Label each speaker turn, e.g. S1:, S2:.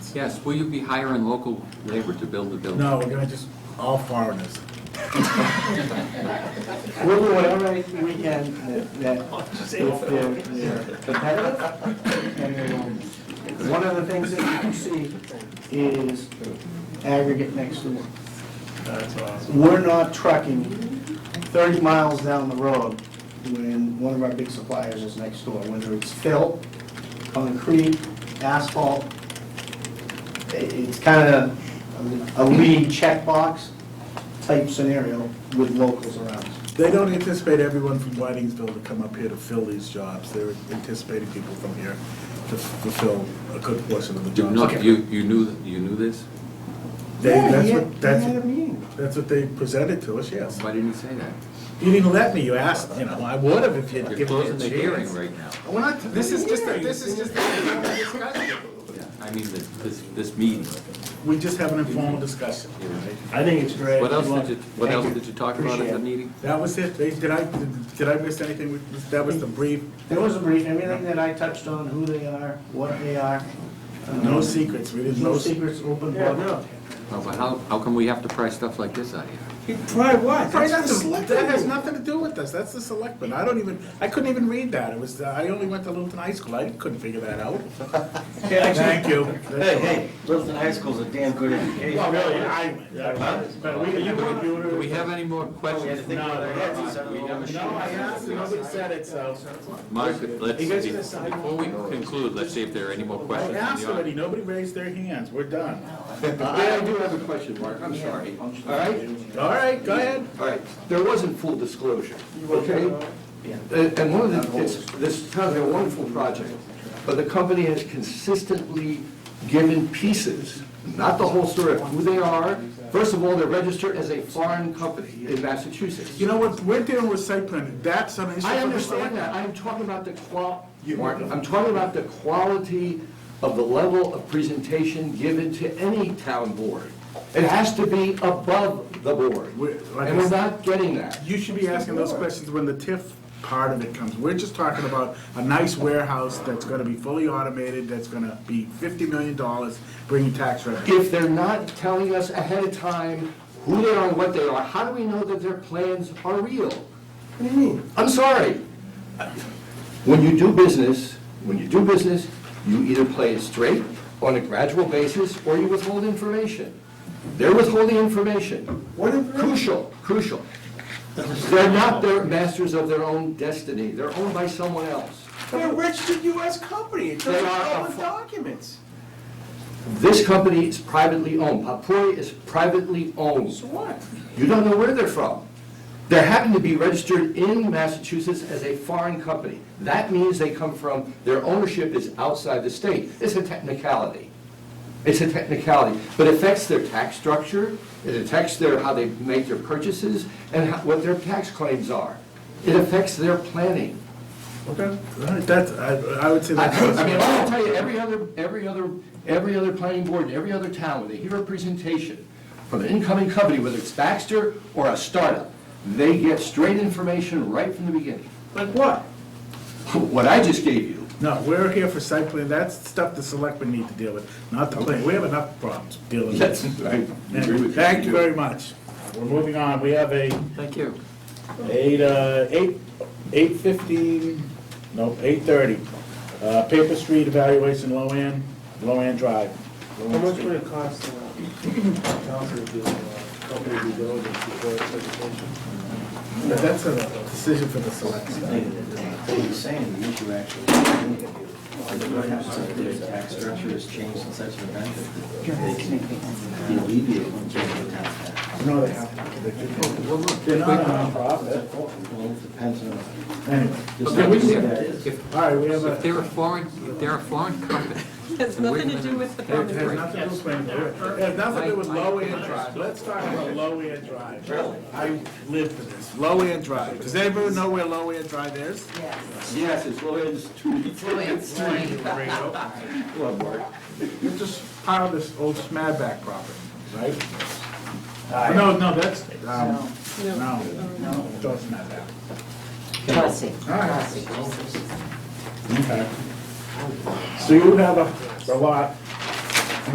S1: yes.
S2: Yes, will you be hiring local labor to build the building?
S1: No, we're gonna just, all foreigners.
S3: We'll do whatever we can that, that if they're, they're competitive and they're owned. One of the things that you can see is aggregate next door.
S4: That's awesome.
S3: We're not trucking thirty miles down the road when one of our big suppliers is next door, whether it's fill, concrete, asphalt. I- It's kind of a lead checkbox type scenario with locals around us.
S1: They don't anticipate everyone from Whitingsville to come up here to fill these jobs. They're anticipating people from here to fulfill a good portion of the
S2: You
S1: jobs.
S2: know, you, you knew, you knew this?
S1: They-
S3: Yeah,
S1: that's
S3: he
S1: what-
S3: had- he
S1: that's-
S3: had a meeting.
S1: That's what they presented to us, yes.
S2: Why didn't you say that?
S1: You didn't let me, you asked, you know, I would have if you'd
S2: You're
S1: given me a
S2: closing the hearing
S1: chance.
S2: right now.
S1: We're not,
S5: This is just, a- this is just. a discussion.
S2: Yeah, I mean, this, this, this meeting.
S1: we just have an informal discussion.
S4: I think it's great.
S2: What else did you, what
S3: Thank
S2: else
S3: you.
S2: did you talk about at
S3: Appreciate
S2: the
S3: it.
S2: meeting?
S1: That was it. They, did I, did I miss anything? with- That was the brief,
S3: There was a brief, everything that I touched on, who they are, what they are. um,
S1: no secrets. We didn't
S3: No
S1: know.
S3: secrets, open
S4: Yeah,
S3: book.
S2: Well, Oh, but how, how come we have to price stuff like this out here?
S1: Try what? That has nothing to do with us. That's the selectmen. I don't even, I couldn't even read that. It was, uh, I only went to Littleton High School. I couldn't figure that out. Thank you.
S5: Hey, hey, Littleton High School's a damn good education.
S4: Well, really, I, but we can have a computer.
S2: Do we have any more
S5: We had to
S2: questions?
S5: think about our heads instead of all the
S1: No, I asked, and nobody said it, so.
S2: Mark, let's,
S1: You guys
S2: be-
S1: gonna sign
S2: before we conclude, let's see if there are any more
S1: I
S2: questions. from
S1: asked
S2: the audience.
S1: already. Nobody raised their hands. We're done.
S6: I I do have a question, Mark, I'm sorry. All right,
S1: All right, go ahead.
S6: all right, there wasn't full disclosure, okay? And and one of the, it's, this sounds like a wonderful project, but the company has consistently given pieces, not the whole story of who they are. First of all, they're registered as a foreign company in Massachusetts.
S1: You know what, we're dealing with site planning, that's an issue.
S6: I
S1: for the
S6: understand
S1: selectmen.
S6: that, I'm talking about the qual, Mark, I'm talking about the quality of the level of presentation given to any town board. It has to be above the board,
S1: We're- like
S6: and
S1: I
S6: we're
S1: said-
S6: not getting that.
S1: You should be asking those questions when the TIF part of it comes. We're just talking about a nice warehouse that's gonna be fully automated, that's gonna be fifty million dollars, bringing tax revenue.
S6: If they're not telling us ahead of time who they are and what they are, how do we know that their plans are real?
S3: What do you mean?
S6: I'm sorry. When you do business, when you do business, you either play it straight on a gradual basis or you withhold information. They're withholding information. What is Crucial, crucial. They're not their masters of their own destiny. They're owned by someone else.
S5: They're a registered U.S. company, it's
S6: They
S5: in
S6: are a
S5: public
S6: fu-
S5: documents.
S6: This company is privately owned. Papuri is privately owned.
S5: So what?
S6: You don't know where they're from. They happen to be registered in Massachusetts as a foreign company. That means they come from, their ownership is outside the state. It's a technicality. It's a technicality, but it affects their tax structure, it affects their, how they make their purchases, and how- what their tax claims are. It affects their planning.
S1: Okay. That's, I, I would say
S6: I I mean, I
S1: that's.
S6: will tell you, every other, every other, every other planning board, in every other town, when they hear a presentation from an incoming company, whether it's Baxter or a startup, they get straight information right from the beginning.
S1: Like what?
S6: What I just gave you,
S1: No, we're here for site plan, that's stuff the selectmen need to deal with, not the plan. We have enough problems dealing with.
S6: that's, I agree with you.
S1: Thank you very much. We're moving on, we have a
S2: Thank you.
S1: Eight, uh, eight, eight fifteen, no, eight thirty. Uh, Paper Street evaluation, low end, low end drive. Low
S7: How
S1: End
S7: much
S1: Street.
S7: would it cost, uh, town to do, uh, company due diligence before it's presentation?
S1: But That's a decision for the select.
S5: What he's saying, the issue actually, is that their tax structure has changed in such an event that they can be alleviated in terms of tax tax.
S1: No, they have. They're not a nonprofit.
S5: Well, it depends on.
S1: Anyway,
S5: just
S2: Okay,
S5: like
S2: we-
S5: you said, it is.
S2: If,
S1: all right, we have a,
S2: if they're a foreign, if they're a foreign company,
S8: Has nothing to do with the
S1: it has
S8: foundation.
S1: nothing to do with planning board. It has nothing to do with low end drive. Let's talk about low end drive. Really? I live for this. Low end drive. Does anybody know where low end drive is?
S6: Yes, it's low end street.
S1: It's just part of this old Smadback property, right? No, Uh, no, that's, um, no, no, it's all Smadback.
S9: Chelsea.
S1: All right.
S9: Chelsea.
S1: Okay. So you have a, a lot,